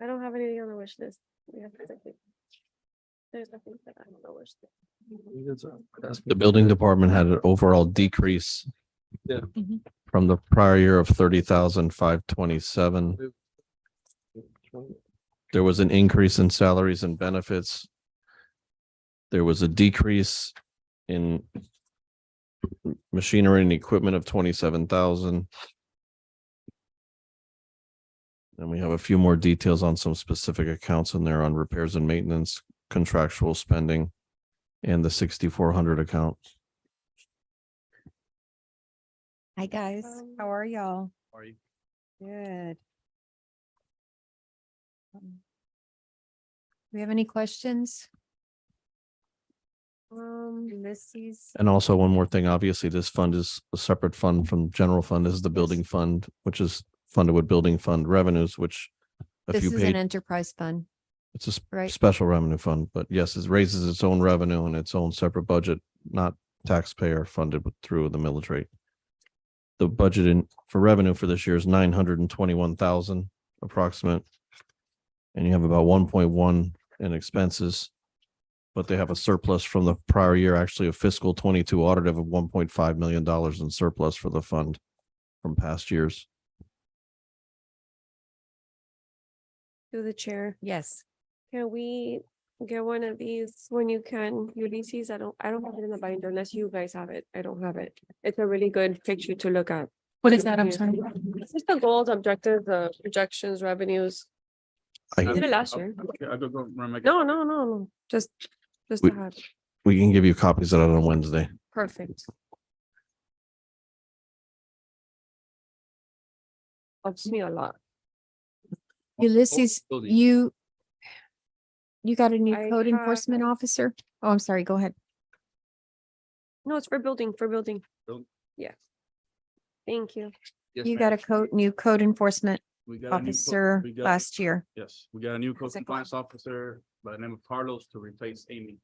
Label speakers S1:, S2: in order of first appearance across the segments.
S1: I don't have anything on the wish list. We have nothing. There's nothing that I don't know wish. list.
S2: The building department had an overall decrease.
S3: Yeah.
S4: Mhm.
S2: From the prior year of thirty thousand five twenty-seven. There was an increase in salaries and benefits. There was a decrease in machinery and equipment of twenty-seven thousand. And we have a few more details on some specific accounts in there on repairs and maintenance, contractual spending and the sixty-four hundred account.
S4: Hi, guys.
S1: Um,
S4: How are y'all?
S3: Are you?
S4: Good. Um, We have any questions?
S1: Um,
S4: Ulysses?
S2: And also one more thing, obviously, this fund is a separate fund from general fund. This is the building fund, which is funded with building fund revenues, which a
S4: This
S2: few
S4: is an
S2: paid,
S4: enterprise fund,
S2: it's a s-
S4: right?
S2: special revenue fund, but yes, it raises its own revenue and its own separate budget, not taxpayer funded with- through the military. The budget in for revenue for this year is nine hundred and twenty-one thousand approximate. And you have about one point one in expenses. But they have a surplus from the prior year, actually a fiscal twenty-two audit of one point five million dollars in surplus for the fund from past years.
S1: through the chair,
S4: Yes.
S1: can we get one of these when you can? Ulysses, I don't, I don't have it in the binder unless you guys have it. I don't have it. It's a really good picture to look at.
S5: What is that? I'm sorry.
S1: It's just the goals, objectives, the projections, revenues.
S2: I-
S1: We Did it last year.
S3: I don't remember.
S1: No, no, no, no, just, just
S2: We-
S1: to have,
S2: We can give you copies of that on Wednesday.
S1: perfect. Helps me a lot.
S4: Ulysses,
S3: Oh, building.
S4: you you got a new
S1: I
S4: code
S1: have-
S4: enforcement officer? Oh, I'm sorry. Go ahead.
S1: No, it's for building, for building.
S3: Build-
S1: Yeah. Thank you.
S3: Yes,
S4: You
S3: ma'am.
S4: got a code, new code enforcement
S3: We got a new co-
S4: officer
S3: we got-
S4: last year.
S3: Yes, we got a new code
S4: Second.
S3: compliance officer by the name of Carlos to replace Amy.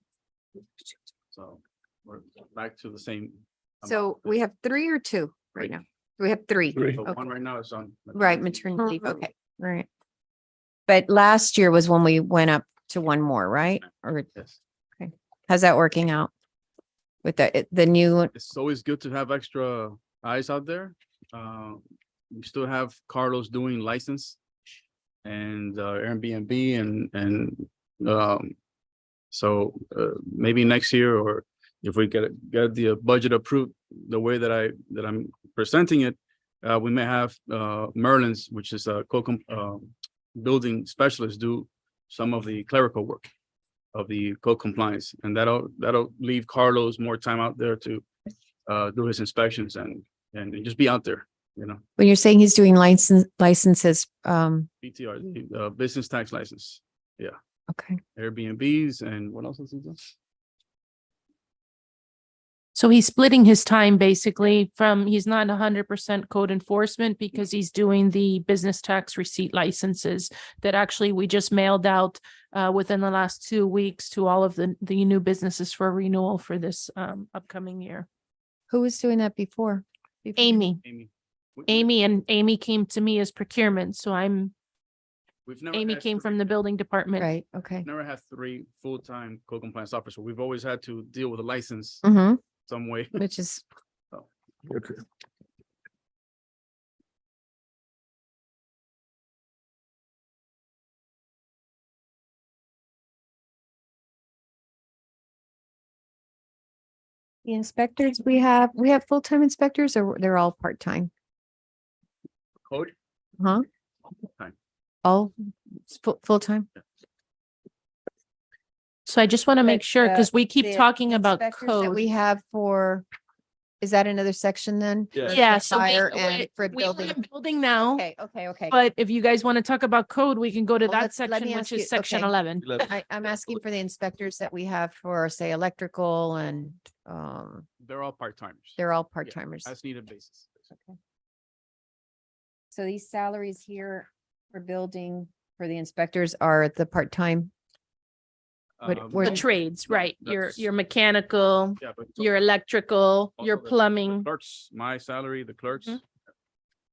S3: So we're back to the same. amount.
S4: So we have three or two right
S3: Three.
S4: now? We have three.
S3: But One
S4: Okay.
S3: right now is on.
S4: Right,
S3: maternity.
S4: maternity leave.
S1: Mhm.
S4: Okay, right. But last year was when we went up to one more, right? Or
S3: Yes,
S4: how's that working out? With the, it- the new,
S3: it's always good to have extra eyes out there. Uh, we still have Carlos doing license and uh, Airbnb and, and, um, so, uh, maybe next year or if we get, it- get the budget approved the way that I, that I'm presenting it, uh, we may have, uh, Merlin's, which is a co um, building specialist do some of the clerical work of the code compliance, and that'll, that'll leave Carlos more time out there to, uh, do his inspections and, and just be out there, you know?
S4: when you're saying he's doing license, licenses, um,
S3: BTR, the, uh, business tax license,
S4: okay.
S3: Airbnbs and what else is it?
S5: So he's splitting his time basically from, he's not hundred percent code enforcement because he's doing the business tax receipt licenses that actually we just mailed out uh, within the last two weeks to all of the, the new businesses for renewal for this um, upcoming year.
S4: Who was doing that before? Before-
S5: Amy,
S3: Amy. We- we-
S5: Amy and Amy came to me as procurement. So I'm,
S3: we've never
S5: Amy
S3: had
S5: came
S3: three-
S5: from the building department.
S4: Right, okay.
S3: Never had three full-time code compliance officers. We've always had to deal with a license
S5: Mm-hmm.
S4: hmm
S3: some way.
S4: which is, the inspectors, we have, we have full-time inspectors or they're all part-time?
S3: Code?
S5: Uh-huh.
S4: Huh?
S3: Time.
S4: All s- fu- full-time?
S5: So I just want to make
S4: But,
S5: sure,
S4: uh,
S5: because we
S4: the
S5: keep talking about
S4: inspectors that
S5: code.
S4: We have for, is that another section then?
S3: Yeah.
S5: Yeah,
S4: For
S5: so we-
S4: Fire
S5: we-
S4: and for
S5: we have
S4: building.
S5: a Building now,
S4: Okay, okay, okay.
S5: but if you guys want to talk about code, we can go to
S4: Well,
S5: that
S4: let's- let
S5: section,
S4: me
S5: which
S4: ask you-
S5: is section
S4: okay.
S5: eleven.
S4: I, I'm asking for the inspectors that we have for, say, electrical and, um,
S3: They're all part-timers.
S4: they're all part-timers.
S3: As needed basis.
S4: So these salaries here for building, for the inspectors are the part-time? What-
S3: Um,
S4: where-
S5: The trades,
S3: Yeah,
S5: right? Your,
S3: that's-
S5: your mechanical,
S3: Yeah, but.
S5: your electrical,
S3: also
S5: your
S3: the- the
S5: plumbing.
S3: Clerks, my salary, the clerks,
S5: Mhm.